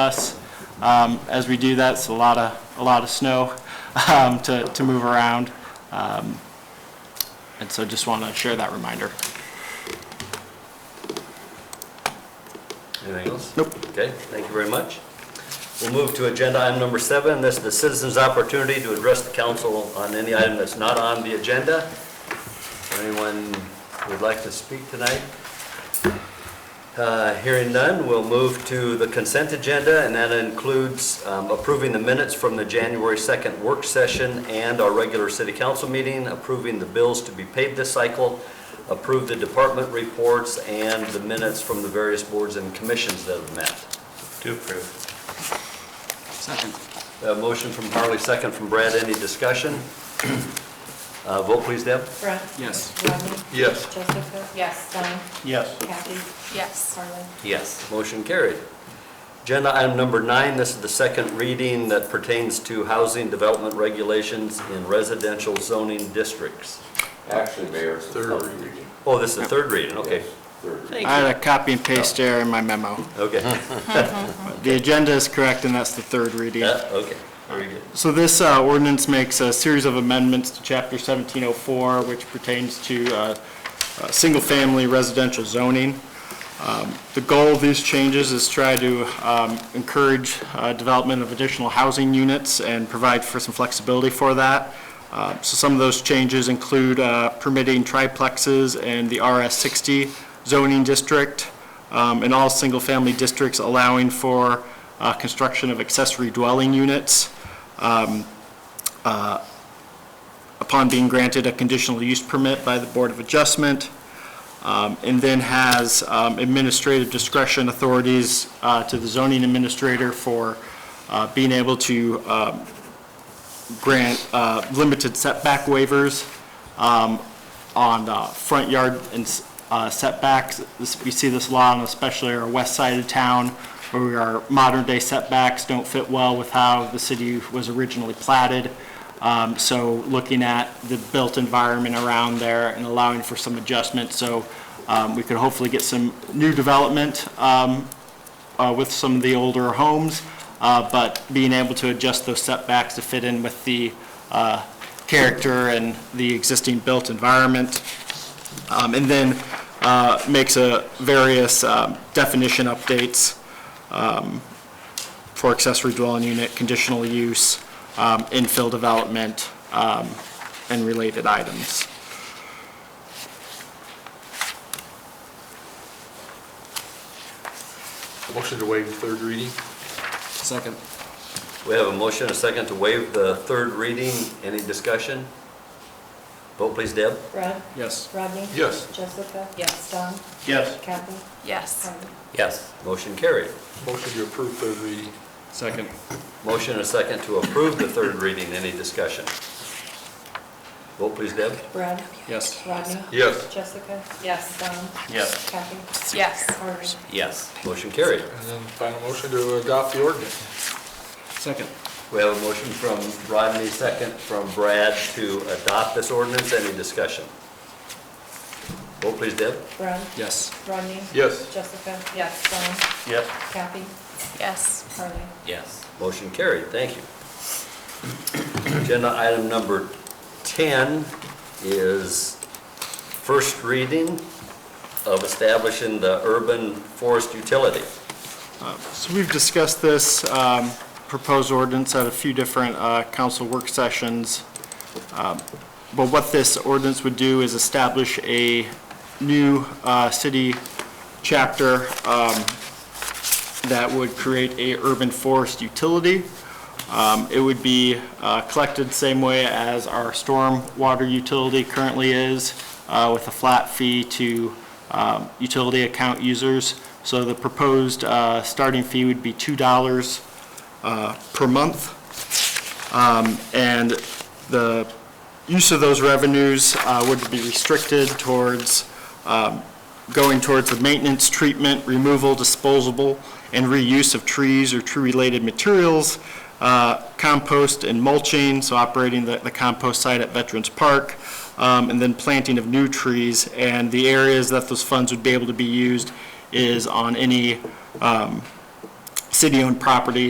us. Um, As we do that, it's a lot of, a lot of snow um, to, to move around. Um, And so just want to share that reminder. Anything else? Nope. Okay, thank you very much. We'll move to agenda item number seven. This is the citizens' opportunity to address the council on any item that's not on the agenda. Anyone would like to speak tonight? Uh, Hearing none, we'll move to the consent agenda, and that includes um, approving the minutes from the January 2nd work session and our regular city council meeting, approving the bills to be paid this cycle, approve the department reports, and the minutes from the various boards and commissions that have met. To approve. Second. A motion from Harley, second from Brad. Any discussion? Uh, Vote please, Deb. Brett? Yes. Rodney? Yes. Jessica? Yes. Don? Yes. Kathy? Yes. Harlan? Yes. Motion carried. Agenda item number nine, this is the second reading that pertains to housing development regulations in residential zoning districts. Actually, Mayor, it's the third reading. Oh, this is the third reading, okay. Yes, Third reading. I had a copy and paste error in my memo. Okay. The agenda is correct, and that's the third reading. Yeah, Uh, Okay, very good. So this uh, ordinance makes a series of amendments to Chapter 1704, which pertains to uh, uh, single-family residential zoning. Um, The goal of these changes is try to um, encourage uh, development of additional housing units and provide for some flexibility for that. Uh, So some of those changes include uh, permitting triplexes in the RS60 zoning district, um, in all single-family districts allowing for uh, construction of accessory dwelling units upon being granted a conditional use permit by the Board of Adjustment, um, and then has um, administrative discretion authorities uh, to the zoning administrator for uh, being able to um, grant uh, limited setback waivers um, on uh, front yard and s- uh, setbacks. This- We see this a lot, on especially our west side of town, where our modern-day setbacks don't fit well with how the city was originally platted. Um, So looking at the built environment around there and allowing for some adjustment, so um, we could hopefully get some new development um, uh, with some of the older homes, uh, but being able to adjust those setbacks to fit in with the uh, character and the existing built environment. Um, And then uh, makes a various um, definition updates um, for accessory dwelling unit, conditional use, um, infill development, um, and related items. Motion to waive third reading? Second. We have a motion, and a second to waive the third reading. Any discussion? Vote please, Deb. Brett? Yes. Rodney? Yes. Jessica? Yes. Don? Yes. Kathy? Yes. Harlan? Yes. Motion carried. Motion to approve third reading? Second. Motion, and a second to approve the third reading. Any discussion? Vote please, Deb. Brett? Yes. Rodney? Yes. Jessica? Yes. Don? Yes. Kathy? Yes. Harlan? Yes. Motion carried. And then final motion to adopt the ordinance? Second. We have a motion from Rodney, second from Brad to adopt this ordinance. Any discussion? Vote please, Deb. Brett? Yes. Rodney? Yes. Jessica? Yes. Don? Yes. Kathy? Yes. Harlan? Yes. Motion carried, thank you. Agenda item number 10 is first reading of establishing the urban forest utility. So we've discussed this um, proposed ordinance at a few different uh, council work sessions. Um, But what this ordinance would do is establish a new uh, city chapter um, that would create a urban forest utility. Um, It would be uh, collected same way as our storm water utility currently is, uh, with a flat fee to um, utility account users. So the proposed uh, starting fee would be $2 uh, per month. Um, And the use of those revenues uh, would be restricted towards going towards the maintenance, treatment, removal, disposable, and reuse of trees or tree-related materials, uh, compost and mulching, so operating the the compost site at Veterans Park, um, and then planting of new trees. And the areas that those funds would be able to be used is on any um, city-owned property